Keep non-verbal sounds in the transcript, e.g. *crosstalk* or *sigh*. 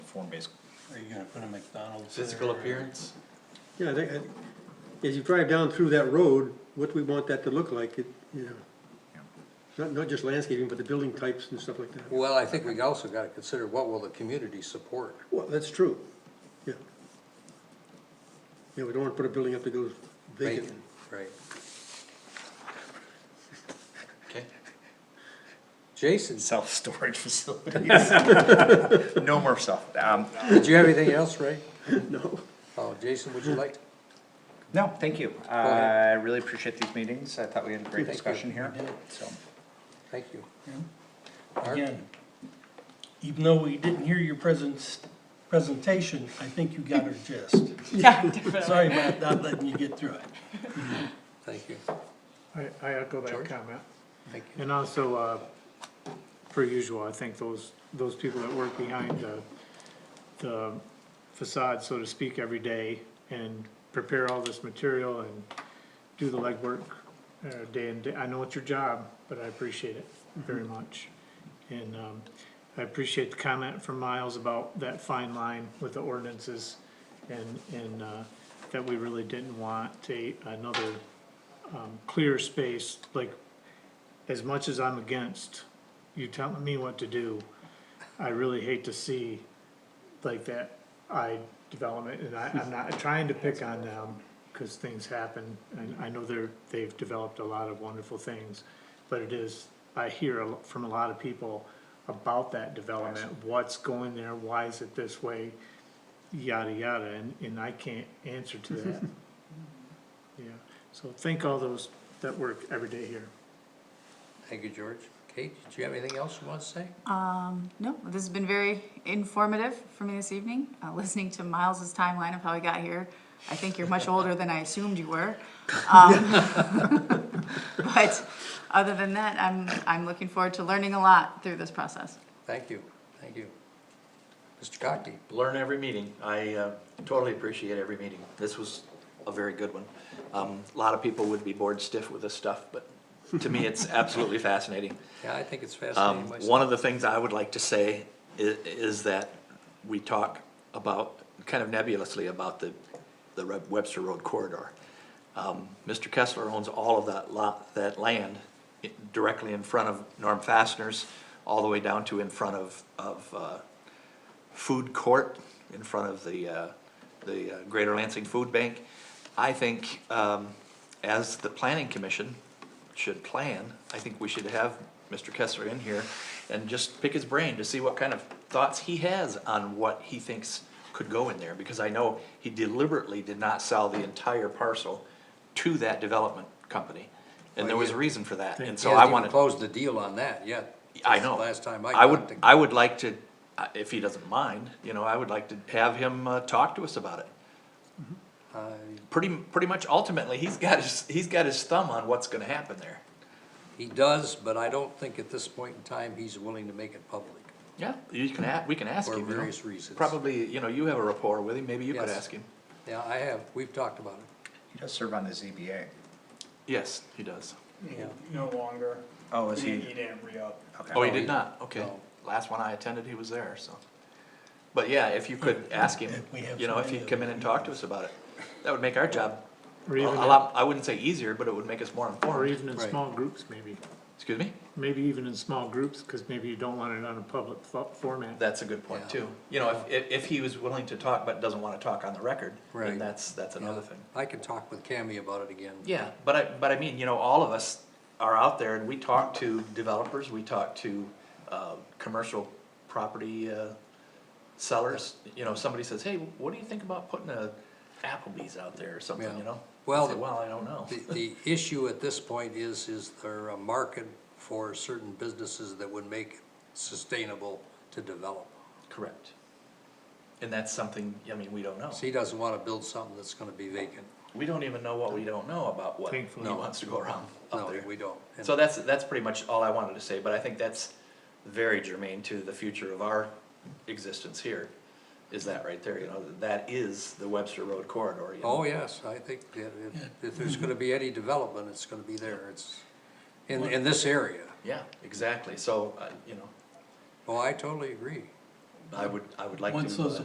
form-based. Are you gonna put a McDonald's? Physical there? appearance? Yeah, I think, I- as you drive down through that road, what we want that to look like, it, you know. Not, not just landscaping, but the building types and stuff like that. Well, I think we also gotta consider what will the community support? Well, that's true, yeah. Yeah, we don't wanna put a building up that goes vacant. Bacon, Right. Okay. Jason, Self-storage *laughs* facilities. *laughs* No more self, um, did you have anything else, Ray? No, Oh, Jason, would you like? no, thank you. Uh, ahead. I really appreciate these meetings. I thought we had a great Thank you. discussion here, so. Thank you. Mark? Again, even though we didn't hear your presence, presentation, I think you got our gist. *laughs* Yeah, definitely. Sorry about not letting you get through it. Thank you, I, I echo that George? comment. thank you. And also, uh, per usual, I think those, those people that work behind the, the facade, so to speak, every day and prepare all this material and do the legwork, uh, day and day, I know it's your job, but I appreciate it very much. And, um, I appreciate the comment from Miles about that fine line with the ordinances and, and, uh, that we really didn't want a, another, um, clear space like as much as I'm against you telling me what to do, I really hate to see like that I development, and I, I'm not trying to pick on them, cause things happen, and I know they're, they've developed a lot of wonderful things, but it is, I hear a lo- from a lot of people about that development, what's going there, why is it this way, yada, yada, and, and I can't answer to that. Yeah, so thank all those that work every day here. Thank you, George. Kate, did you have anything else you want to say? No, Um, this has been very informative for me this evening, uh, *laughs* listening to Miles's timeline of how he got here. I think you're much older than I assumed you were. Um, *laughs* But other than that, I'm, I'm looking forward to learning a lot through this process. Thank you, thank you. Mr. Cockney, Learn every meeting. I uh, totally appreciate every meeting. This was a very good one. Um, A lot of people would be bored stiff with this stuff, but to me, it's absolutely fascinating. yeah, I think it's Um, fascinating. myself. One of the things I would like to say i- is that we talk about, kind of nebulously, about the, the Re- Webster Road corridor. Um, Mr. Kessler owns all of that lot, that land i- directly in front of Norm Fasteners, all the way down to in front of, of, uh, food court in front of the, uh, the uh, Greater Lansing Food Bank. I think, um, as the planning commission should plan, I think we should have Mr. Kessler in here and just pick his brain to see what kind of thoughts he has on what he thinks could go in there, because I know he deliberately did not sell the entire parcel to that development company. And there was a reason for that, and He so I hasn't even wanted. closed the deal on that yet. I This is know. the Last time I I got would, the, I would like to, uh, if he doesn't mind, you know, I would like to have him, uh, talk to us about it. I- Pretty, pretty much ultimately, he's got his, he's got his thumb on what's gonna happen there. he does, but I don't think at this point in time, he's willing to make it public. Yeah, you can a, we can ask For him, you know. various reasons. Probably, you know, you have a rapport with him, maybe you could Yes. ask him. Yeah, I have, we've talked about it, He does serve on the ZBA. Yes, he does. yeah. No longer. Oh, is He he? he didn't re-up. Oh, Okay. he did not, okay. No. Last one I attended, he was there, so. But yeah, if you could ask him, If we have you know, if somebody he'd that come in and talk to us about it, that would make our job Or a a even, lot, I wouldn't say easier, but it would make us more or informed. even in Right. small groups maybe, Excuse me? maybe even in small groups, cause maybe you don't want it on a public fo- format. That's a good point Yeah. too. You know, if, if, if he was willing to talk but doesn't wanna talk on the record, Right. then that's, that's another Yeah. thing. I can talk with Cammy about it again. Yeah, but I, but I mean, you know, all of us are out there and we talk to developers, we talk to, uh, commercial property, uh, sellers. You know, somebody says, hey, what do you think about putting a Applebee's out there or something, Yeah. you know? Well, I say, Well, I don't know. The, the issue at this point is, is there a market for certain businesses that would make it sustainable to develop? Correct. And that's something, I mean, we don't know. So he doesn't wanna build something that's gonna be vacant. We don't even know what we don't know about what he Thankfully. wants to go around up No, there. we don't. And So that's, that's pretty much all I wanted to say, but I think that's very germane to the future of our existence here, is that right there, you know, that is the Webster Road corridor, you know? Oh, yes, I think that if, if there's gonna be any development, it's gonna be there, it's, in, in this area. Yeah, exactly, so, uh, you know, Oh, I totally agree. I would, I would like to. Once those